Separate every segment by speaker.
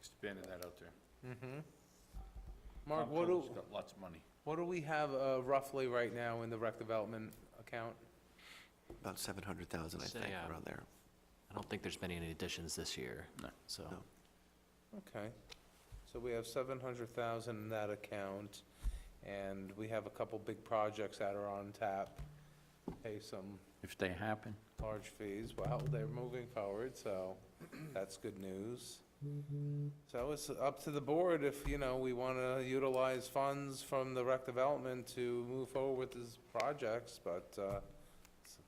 Speaker 1: expanded that out there.
Speaker 2: Mm-hmm. Mark, what do,
Speaker 1: Comptroller's got lots of money.
Speaker 2: what do we have uh, roughly right now in the rec development account?
Speaker 3: About 700,000, I
Speaker 4: Say,
Speaker 3: think,
Speaker 4: uh,
Speaker 3: around there.
Speaker 4: I don't think there's been any additions this year.
Speaker 1: No.
Speaker 4: So,
Speaker 3: No.
Speaker 2: Okay, so we have seven hundred thousand in that account, and we have a couple big projects that are on tap. Pay some
Speaker 1: If they happen.
Speaker 2: large fees, well, they're moving forward, so that's good news. So it's up to the board if, you know, we want to utilize funds from the rec development to move forward with these projects, but,
Speaker 1: I
Speaker 2: uh,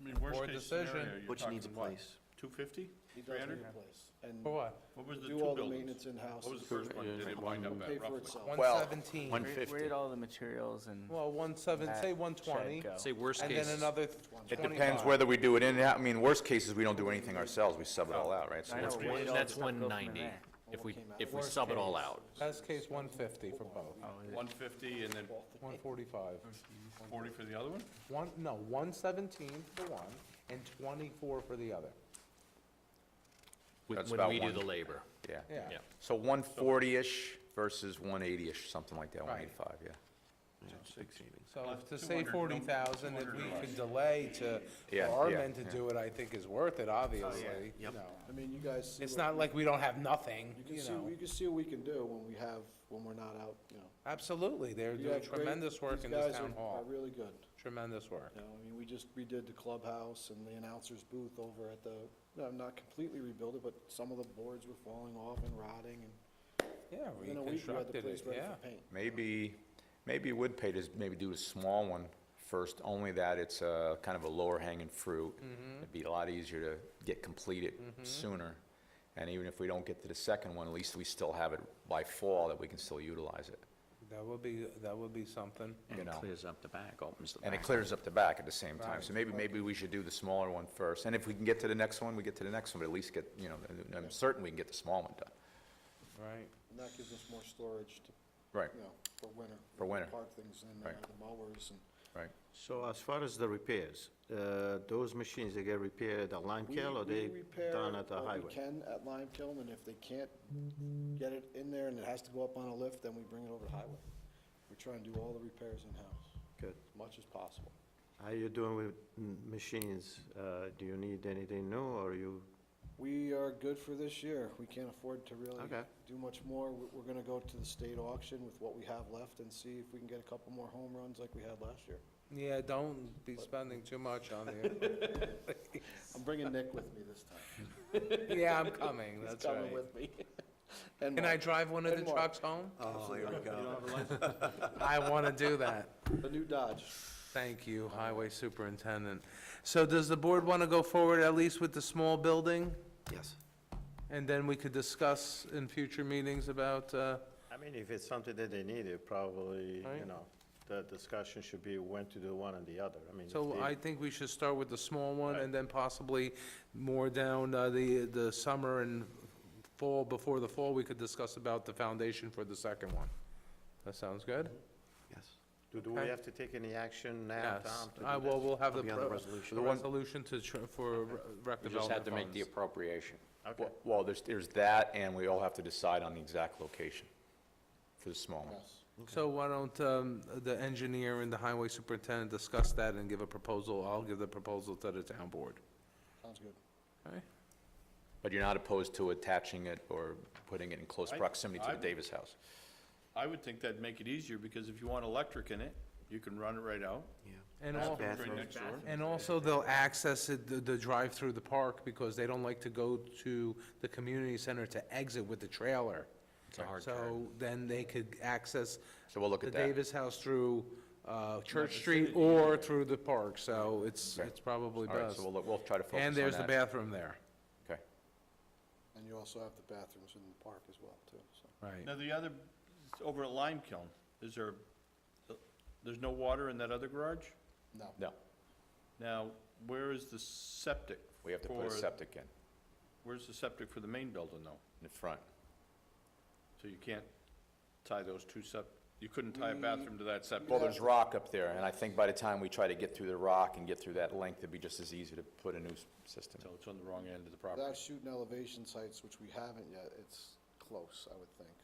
Speaker 1: mean, worst
Speaker 2: Board
Speaker 1: case
Speaker 2: decision.
Speaker 1: scenario, you're
Speaker 3: Which
Speaker 1: talking
Speaker 3: needs a
Speaker 1: what,
Speaker 3: place.
Speaker 1: two fifty?
Speaker 5: He does need
Speaker 1: 300?
Speaker 5: a place. And
Speaker 2: for what?
Speaker 1: What was the two
Speaker 5: do all the
Speaker 1: buildings?
Speaker 5: maintenance in-house.
Speaker 1: What was the first one, did it wind up
Speaker 5: Pay
Speaker 1: at
Speaker 5: for
Speaker 1: roughly?
Speaker 5: itself.
Speaker 2: One
Speaker 6: Well,
Speaker 2: seventeen.
Speaker 6: Where- Where did all the materials and
Speaker 2: Well, one seven,
Speaker 6: that
Speaker 2: say one twenty,
Speaker 6: shed go?
Speaker 4: say worst
Speaker 2: and then
Speaker 4: case,
Speaker 2: another
Speaker 6: It
Speaker 2: twenty-five.
Speaker 6: depends whether we do it in, I mean, worst cases, we don't do anything ourselves, we sub it all out, right? So
Speaker 4: I
Speaker 6: what's-
Speaker 4: know,
Speaker 1: case-
Speaker 4: where did all
Speaker 6: what's-
Speaker 4: the stuff go from
Speaker 5: 190.
Speaker 4: there? if we,
Speaker 5: came out.
Speaker 4: if we
Speaker 6: Worst
Speaker 4: sub it all
Speaker 6: case.
Speaker 4: out.
Speaker 2: Best case, one fifty for both,
Speaker 6: Oh, is it-
Speaker 1: One fifty and then
Speaker 2: one forty-five.
Speaker 1: forty for the other one?
Speaker 2: One, no, one seventeen for one, and twenty-four for the other,
Speaker 4: When
Speaker 6: That's
Speaker 4: when
Speaker 6: about
Speaker 4: we do
Speaker 6: one.
Speaker 4: the labor.
Speaker 6: Yeah.
Speaker 2: yeah.
Speaker 4: Yeah.
Speaker 6: So 140-ish versus 180-ish, something like that,
Speaker 2: Right.
Speaker 6: 185, yeah.
Speaker 2: So
Speaker 1: Uh,
Speaker 2: if to say
Speaker 1: 200,
Speaker 2: forty
Speaker 1: no,
Speaker 2: thousand, if
Speaker 1: 200
Speaker 2: we
Speaker 1: or less.
Speaker 2: could delay to, for
Speaker 6: Yeah,
Speaker 2: our
Speaker 6: yeah,
Speaker 2: men to
Speaker 6: yeah.
Speaker 2: do it, I think is worth it,
Speaker 5: Oh,
Speaker 2: obviously, you
Speaker 3: Yep.
Speaker 2: know.
Speaker 5: I mean, you guys. see
Speaker 2: It's
Speaker 5: what-
Speaker 2: not like we don't have nothing,
Speaker 5: You can
Speaker 2: you
Speaker 5: see,
Speaker 2: know.
Speaker 5: you can see what we can do when we have, when we're not out, you know.
Speaker 2: Absolutely, they're
Speaker 5: You
Speaker 2: doing
Speaker 5: got great-
Speaker 2: tremendous work
Speaker 5: these
Speaker 2: in this
Speaker 5: guys
Speaker 2: town
Speaker 5: are- Are
Speaker 2: hall,
Speaker 5: really good,
Speaker 2: tremendous work.
Speaker 5: you know, I mean, we just redid the clubhouse and the announcer's booth over at the, no, not completely rebuilt it, but some of the boards were falling off and rotting and.
Speaker 2: Yeah,
Speaker 5: in a week, we had the
Speaker 2: reconstructed
Speaker 5: place
Speaker 2: it,
Speaker 5: ready
Speaker 2: yeah.
Speaker 5: for paint.
Speaker 6: Maybe, maybe it would pay to s- maybe do a small one first, only that it's a kind of a lower hanging fruit. It'd be a lot easier to get completed sooner. And even if we don't get to the second one, at least we still have it by fall that we can still utilize it,
Speaker 2: That would be, that would be something.
Speaker 6: you know?
Speaker 1: up the back, opens the
Speaker 6: And it clears up the back at the same time. So maybe, maybe we should do the smaller one first. And if we can get to the next one, we get to the next one, but at least get, you know, I'm certain we can get the small one done.
Speaker 2: Right.
Speaker 5: And that gives us more storage to,
Speaker 6: Right,
Speaker 5: you know, for winter.
Speaker 6: For winter.
Speaker 5: Park things in there,
Speaker 6: Right.
Speaker 5: the mowers and.
Speaker 6: right.
Speaker 7: So as far as the repairs, uh, those machines, they get repaired at Lime
Speaker 5: We-
Speaker 7: Kiln or
Speaker 5: we
Speaker 7: they
Speaker 5: repair
Speaker 7: done at the
Speaker 5: what we
Speaker 7: highway?
Speaker 5: can at Lime Kiln, and if they can't get it in there and it has to go up on a lift, then we bring it over to highway. We try and do all the repairs in-house,
Speaker 7: Good.
Speaker 5: as much as possible.
Speaker 7: How you doing with m- machines? Uh, Do you need anything new or you,
Speaker 5: We are good for this year. We can't afford to really
Speaker 7: Okay.
Speaker 5: do much more. We- We're gonna go to the state auction with what we have left and see if we can get a couple more home runs like we had last year.
Speaker 2: Yeah, don't be spending too much on there.
Speaker 5: I'm bringing Nick with me this time.
Speaker 2: Yeah, I'm coming,
Speaker 5: He's
Speaker 2: that's
Speaker 5: coming
Speaker 2: right.
Speaker 5: with me.
Speaker 2: Can I drive one of the
Speaker 5: And Mark.
Speaker 2: trucks home?
Speaker 3: Oh, here we go.
Speaker 2: I want to do that.
Speaker 5: The new Dodge.
Speaker 2: Thank you, Highway Superintendent. So does the board want to go forward at least with the small building?
Speaker 3: Yes.
Speaker 2: And then we could discuss in future meetings about, uh,
Speaker 8: I mean, if it's something that they need, it probably, you
Speaker 2: Right.
Speaker 8: know, the discussion should be when to do one and the other. I mean, if
Speaker 2: so
Speaker 8: they-
Speaker 2: I think we should start with the small one and then possibly more down uh, the, the summer and fall, before the fall, we could discuss about the foundation for the second one. That sounds good?
Speaker 3: Yes.
Speaker 8: do do
Speaker 2: okay.
Speaker 8: we have to take any action now,
Speaker 2: Yes.
Speaker 8: Tom? to do
Speaker 2: Uh, Well,
Speaker 8: this?
Speaker 2: we'll have the
Speaker 3: be on the
Speaker 2: pro-
Speaker 3: resolution.
Speaker 2: the
Speaker 6: The one-
Speaker 2: resolution to, tr- for re- rec
Speaker 1: You just
Speaker 2: development
Speaker 1: had to make the
Speaker 2: funds.
Speaker 1: appropriation.
Speaker 8: Okay.
Speaker 6: Well, there's, there's that, and we all have to decide on the exact location for the small one.
Speaker 2: So why don't um, the engineer and the highway superintendent discuss that and give a proposal? I'll give the proposal to the town board.
Speaker 5: Sounds good.
Speaker 2: Okay?
Speaker 6: But you're not opposed to attaching it or putting it in close
Speaker 1: I-
Speaker 6: proximity to
Speaker 1: I-
Speaker 6: the Davis house?
Speaker 1: I would think that'd make it easier, because if you want electric in it, you can run it right out.
Speaker 2: And
Speaker 1: It's
Speaker 2: al-
Speaker 1: Right next door.
Speaker 2: and also, they'll access it, the- the drive through the park, because they don't like to go to the community center to exit with the trailer.
Speaker 4: It's a hard turn.
Speaker 2: So then they could access
Speaker 6: So we'll look
Speaker 2: the
Speaker 6: at that.
Speaker 2: Davis House through uh, Church Street or through the park, so it's,
Speaker 6: Okay.
Speaker 2: it's probably
Speaker 6: All right,
Speaker 2: best.
Speaker 6: so we'll, look- we'll try to focus on that.
Speaker 2: And there's the bathroom there,
Speaker 6: Okay.
Speaker 5: And you also have the bathrooms in the park as well, too, so.
Speaker 2: right.
Speaker 1: Now, the other, over at Lime Kiln, is there, there's no water in that other garage?
Speaker 5: No.
Speaker 6: No,
Speaker 1: Now, where is the septic?
Speaker 6: we have to put a
Speaker 1: for-
Speaker 6: septic in,
Speaker 1: Where's the septic for the main building, though?
Speaker 6: in front.
Speaker 1: So you can't tie those two sep, you couldn't tie a bathroom to that septic?
Speaker 6: Mm. Well, there's rock up there, and I think by the time we try to get through the rock and get through that length, it'd be just as easy to put a new s- system.
Speaker 1: So it's on the wrong end of the property.
Speaker 5: Without shooting elevation sites, which we haven't yet, it's close, I would think.